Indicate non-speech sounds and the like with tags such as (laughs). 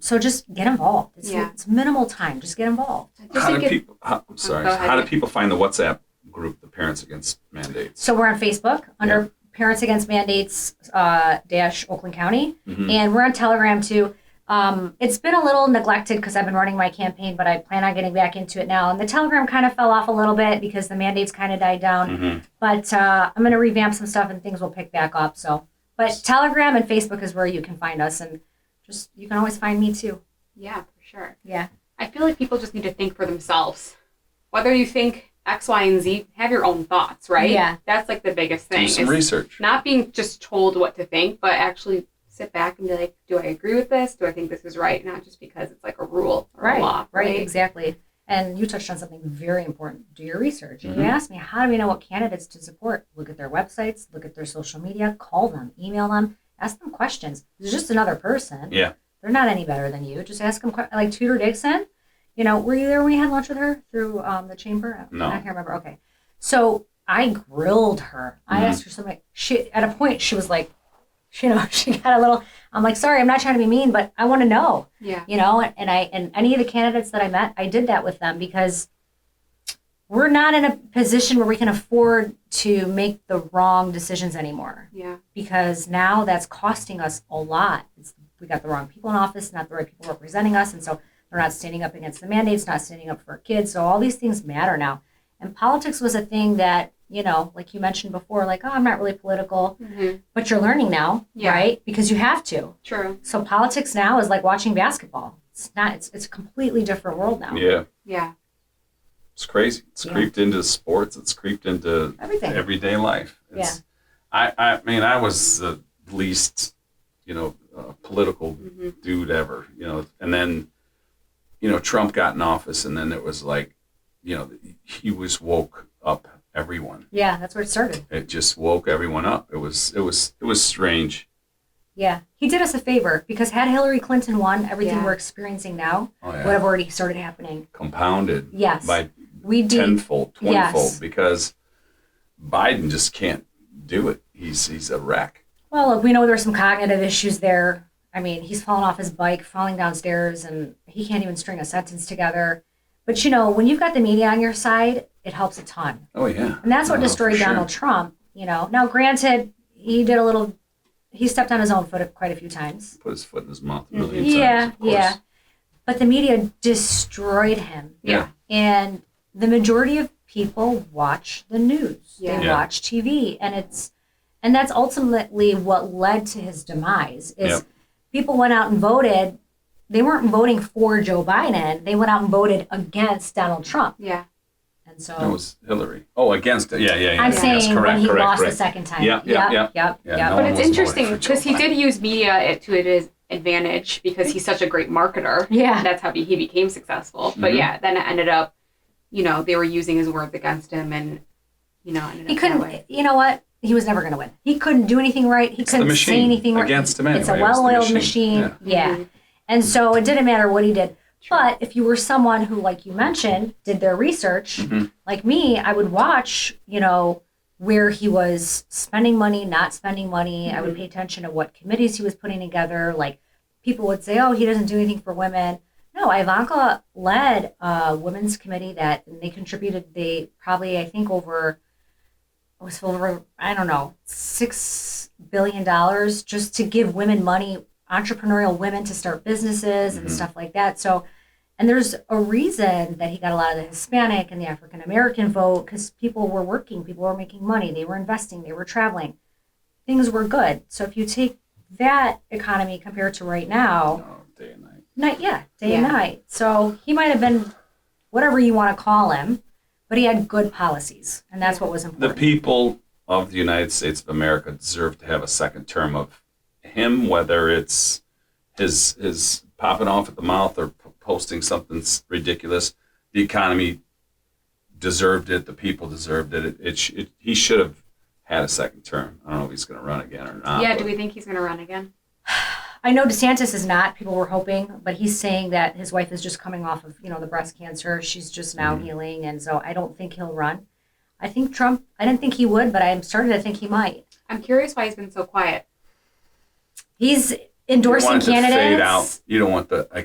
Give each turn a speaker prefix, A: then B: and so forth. A: So just get involved. It's,
B: Yeah.
A: it's minimal time. Just get involved.
B: Just
C: how
B: think
C: do
B: it-
C: people? How, I'm sorry.
B: go ahead.
C: how do people find the WhatsApp group, the Parents Against Mandates?
A: So we're on Facebook under Parents Against Mandates uh, dash Oakland County,
C: Mhm.
A: and we're on Telegram too. Um, it's been a little neglected because I've been running my campaign, but I plan on getting back into it now. And the Telegram kind of fell off a little bit because the mandates kind of died down.
C: Mhm.
A: But uh, I'm going to revamp some stuff and things will pick back up. So, but Telegram and Facebook is where you can find us, and just you can always find me too.
B: Yeah, for sure.
A: Yeah.
B: I feel like people just need to think for themselves. Whether you think X, Y, and Z, have your own thoughts, right?
A: Yeah.
B: That's like the biggest thing.
C: Do some
B: is
C: research.
B: Not being just told what to think, but actually sit back and be like, do I agree with this? Do I think this is right? Not just because it's like a rule or a law,
A: right,
B: right?
A: exactly. And you touched on something very important. Do your research. If
C: Mhm.
A: You asked me, how do we know what candidates to support? Look at their websites, look at their social media, call them, email them, ask them questions. It's just another person.
C: Yeah.
A: They're not any better than you. Just ask them, que- like Tudor Dixon. You know, were you there when we had lunch with her through um, the chamber?
C: No.
A: I can't remember. Okay. So I grilled her. I
C: Mhm.
A: asked her something. She, at a point, she was like, you know, (laughs) she got a little, I'm like, sorry, I'm not trying to be mean, but I want to know
B: Yeah.
A: you know and, and i and any of the candidates that i met i did that with them because we're not in a position where we can afford to make the wrong decisions anymore
B: Yeah.
A: because now that's costing us a lot it's, we got the wrong people in office not the right people representing us and so they're not standing up against the mandates not standing up for our kids so all these things matter now and politics was a thing that you know like you mentioned before like oh i'm not really political
B: hmm
A: but you're learning now
B: Yeah.
A: right because you have to
B: True.
A: so politics now is like watching basketball. It's not. It's it's a completely different world now.
C: Yeah,
B: Yeah.
C: it's crazy. It's
A: Yeah.
C: creeped into sports. It's creeped into
A: Everything.
C: everyday life. It's, yeah. I, I mean, I was the least, you know, uh, political
B: hmm
C: dude ever, you know. And then, you know, Trump got in office, and then it was like, you know, he was woke up everyone.
A: yeah, that's where it started.
C: It just woke everyone up. It was, it was, it was strange.
A: Yeah, he did us a favor because had Hillary Clinton won, everything
B: Yeah.
A: we're experiencing now
C: Oh yeah,
A: would have already started happening.
C: compounded
A: Yes,
C: by
A: we did.
C: tenfold,
A: Yes.
C: twentyfold, because Biden just can't do it. He's he's a wreck.
A: Well, look, we know there's some cognitive issues there. I mean, he's fallen off his bike, falling downstairs, and he can't even string a sentence together. But you know, when you've got the media on your side, it helps a ton.
C: Oh yeah,
A: And that's what
C: No,
A: destroyed
C: for sure.
A: Donald Trump, you know. Now, granted, he did a little, he stepped on his own foot quite a few times.
C: Put his foot in his mouth a
B: Mhm.
A: Mm-hmm.
C: 1000000
A: Yeah,
C: times. of course.
A: yeah. But the media destroyed him.
B: Yeah.
A: And the majority of people watch the news. They
B: Yeah.
A: watch TV. And it's and that's ultimately what led to his demise is
C: Yep.
A: people went out and voted. They weren't voting for Joe Biden. They went out and voted against Donald Trump.
B: Yeah.
A: And so
C: That was Hillary. Oh, against it. Yeah, yeah, yeah.
A: I'm
C: yes,
A: saying
C: correct,
A: when he
C: correct,
A: lost
C: correct.
A: the second time.
C: Yep, yep,
A: Yep. yep,
C: Yeah,
A: yep.
C: no
B: But
C: one
B: it's
C: was voting for
B: interesting
C: Joe
B: because he
C: Biden.
B: did use media at- to his advantage because he's such a great marketer.
A: (laughs) Yeah.
B: That's how he became successful. But
C: Mhm.
B: yeah, then it ended up, you know, they were using his words against him and, you know, ended
A: He
B: up That way.
A: couldn't. You know what? He was never going to win. He couldn't do anything right. He
C: It's the
A: couldn't say
C: machine
A: anything right.
C: against him
A: It's a
C: anyway. It was the
A: well-oiled
C: machine.
A: machine. Yeah.
B: Mhm.
A: And so it didn't matter what he did.
B: True.
A: But if you were someone who, like you mentioned, did their research,
C: Mhm.
A: like me, I would watch. You know where he was spending money, not spending money. I would
B: Mhm.
A: pay attention to what committees he was putting together. Like people would say, "Oh, he doesn't do anything for women." No, Ivanka led a women's committee that and they contributed. They probably, I think, over it was over I don't know six billion dollars just to give women money, entrepreneurial women to start businesses and
C: Mhm.
A: stuff like that. So, and there's a reason that he got a lot of the Hispanic and the African American vote because people were working, people were making money, they were investing, they were traveling, things were good. So if you take that economy compared to right now,
C: Oh, day and night.
A: night yeah day and
B: Yeah.
A: night so he might have been whatever you want to call him but he had good policies and that's what was
C: The
A: important
C: people of the United States of America deserve to have a second term of him, whether it's his his popping off at the mouth or p- posting something s- ridiculous. The economy deserved it. The people deserved it. It, it, sh- it he should have had a second term. I don't know if he's going to run again or not.
B: yeah,
C: Ah, but
B: do we think he's going to run again?
A: i know desantis is not people were hoping but he's saying that his wife is just coming off of you know the breast cancer she's just now
C: Mhm.
A: healing and so i don't think he'll run i think trump i didn't think he would but i'm starting to think he might
B: I'm curious why he's been so quiet.
A: he's
C: you don't
A: endorsing
C: want it to
A: candidates
C: fade out. You don't want the